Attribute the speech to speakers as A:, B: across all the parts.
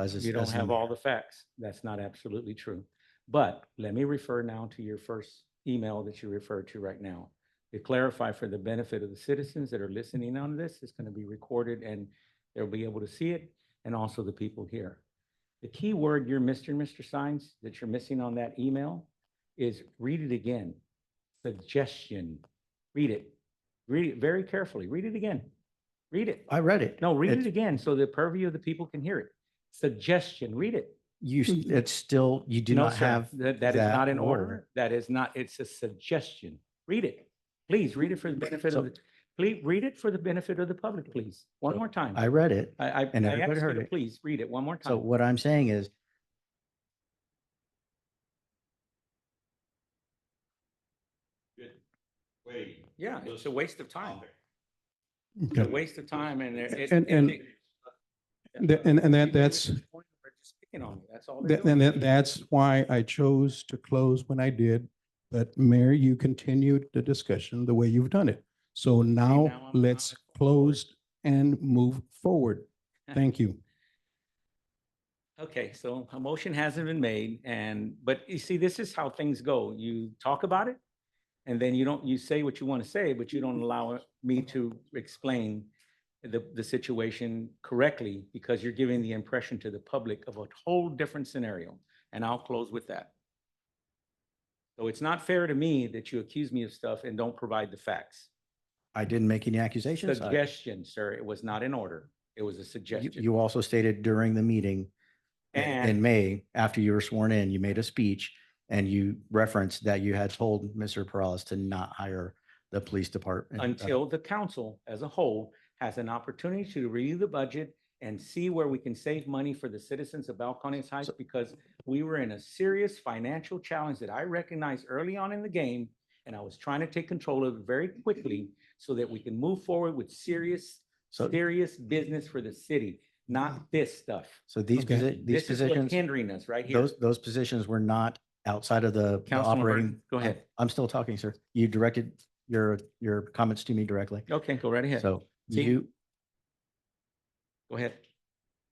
A: as is.
B: You don't
A: as
B: have
A: in-
B: all the facts. That's not absolutely true. But let me refer now to your first email that you referred to right now. To clarify for the benefit of the citizens that are listening on this, it's going to be recorded and they'll be able to see it and also the people here. The key word you're missing, Mr. Sines, that you're missing on that email is read it again. Suggestion. Read it. Read it very carefully. Read it again. Read it.
A: I read it.
B: No, read it
A: It's-
B: again so the purview of the people can hear it. Suggestion, read it.
A: You, s- it's still, you do
B: No,
A: not
B: sir,
A: have.
B: That, that is
A: that
B: not an
A: word.
B: order. That is not, it's a suggestion. Read it. Please, read it for the benefit
A: So-
B: of, the. please, read it for the benefit of the public, please. One
A: So,
B: more time.
A: I read it.
B: I, I,
A: and
B: I
A: everybody
B: asked you
A: heard
B: to
A: it.
B: please read it one more
A: So
B: time.
A: what I'm saying is
C: Wait.
B: Yeah, it's a waste of time. It's a
D: Okay.
B: waste of time and it- it.
D: And-
B: it-
D: and-
B: it-
D: Th- and- and that-
B: People
D: that's-
B: at this point are just picking on me. That's all they're
D: Th- And
B: doing.
D: that- that's why I chose to close when I did. But Mayor, you continued the discussion the way you've done it. So
B: now
D: now
B: I'm-
D: let's
B: I'm a-
D: close and move forward. Thank
B: Uh,
D: you.
B: Okay, so a motion hasn't been made and, but you see, this is how things go. You talk about it. And then you don't, you say what you want to say, but you don't allow me to explain the, the situation correctly because you're giving the impression to the public of a whole different scenario. And I'll close with that. So it's not fair to me that you accuse me of stuff and don't provide the facts.
A: I didn't make any accusations. I-
B: Suggestion, sir, it was not in order. It was a
A: You
B: suggestion.
A: you also stated during the meeting i- in
B: And-
A: May, after you were sworn in, you made a speech and you referenced that you had told Mr. Perales to not hire the police department. uh,
B: until the council as a whole has an opportunity to review the budget and see where we can save money for the citizens of Balcones Heights because we were in a serious financial challenge that I recognized early on in the game. And I was trying to take control of it very quickly so that we can move forward with serious,
A: So,
B: serious business for the city, not this stuff.
A: so these,
D: Okay.
A: posi- these
B: This is what's
A: positions,
B: hindering us right here.
A: those, those positions were not outside of the the
B: Councilman
A: operating.
B: Burton, go
A: I'm-
B: ahead.
A: I'm still talking, sir. You directed your, your comments to me directly.
B: Okay, go right ahead. Go
A: Oh. So
B: See-
A: you,
B: ahead.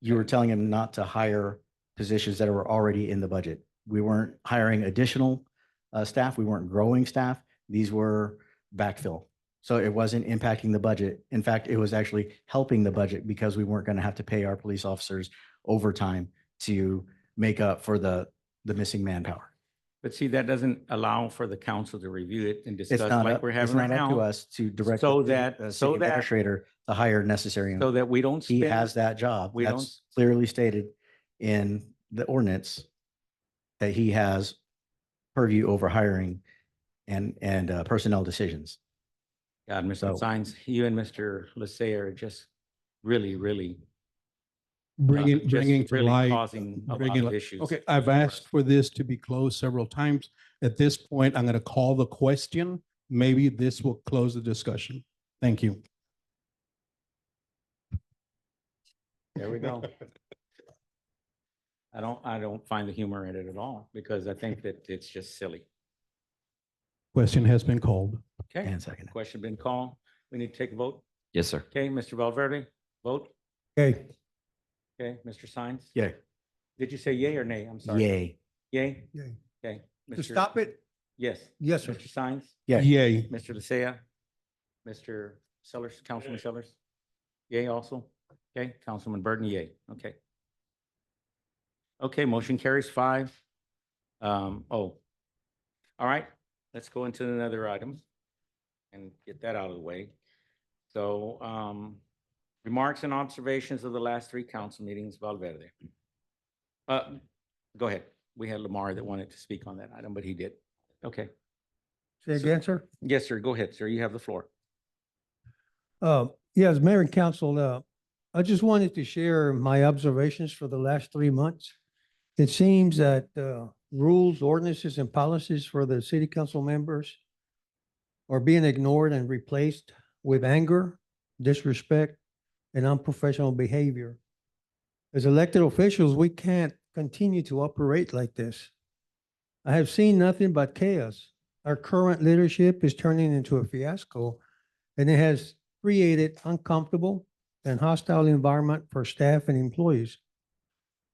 A: you were telling him not to hire positions that were already in the budget. We weren't hiring additional uh, staff. We weren't growing staff. These were backfill. So it wasn't impacting the budget. In fact, it was actually helping the budget because we weren't going to have to pay our police officers overtime to make up for the, the missing manpower.
B: But see, that doesn't allow for the council to review it and
A: It's
B: discuss
A: not,
B: like
A: up-
B: we're
A: it's
B: having right
A: not up to
B: now.
A: us to direct.
B: so
A: the
B: that-
A: uh,
B: so
A: city
B: that-
A: Administrator to hire necessary.
B: So that we don't
A: He
B: spend.
A: has that job.
B: we
A: That's
B: don't-
A: clearly stated in the ordinance that he has purview over hiring and, and uh, personnel decisions.
B: God,
A: So-
B: Mr. Sines, you and Mr. Lassay are just really, really. uh,
D: Bringing,
B: just
D: bringing to
B: really
D: light.
B: Causing a lot
D: bringing
B: of
D: li-
B: issues.
D: Okay, I've asked for this to be closed several times. At this point, I'm going to call the question. Maybe this will close the discussion. Thank you.
B: There we go. I don't, I don't find the humor in it at all because I think that it's just silly.
D: Question has been called.
B: Okay,
A: And second.
B: question been called. We need to take a vote.
E: Yes, sir.
B: Okay, Mr. Valverde, vote.
D: Okay.
B: Okay, Mr. Sines?
A: Yay.
B: Did you say yay or nay? I'm sorry.
A: Yay.
B: Yay?
D: Yay.
B: Okay.
F: To
B: Mr.
F: stop it?
B: Yes.
F: Yes, sir.
B: Mr. Sines,
A: Yay.
D: Yay.
B: Mr. Lassay, Mr. Sellers, Councilman Sellers? Yay also? Okay, Councilman Burton, yay. Okay. Okay, motion carries five. Um, oh. All right, let's go into another item and get that out of the way. So, um, remarks and observations of the last three council meetings, Valverde. Uh, go ahead. We had Lamar that wanted to speak on that item, but he did. Okay.
F: Say again, sir?
B: Yes, sir. Go ahead, sir. You have the floor.
F: Uh, yes, Mayor and Council, uh, I just wanted to share my observations for the last three months. It seems that, uh, rules, ordinances and policies for the city council members are being ignored and replaced with anger, disrespect, and unprofessional behavior. As elected officials, we can't continue to operate like this. I have seen nothing but chaos. Our current leadership is turning into a fiasco and it has created uncomfortable and hostile environment for staff and employees.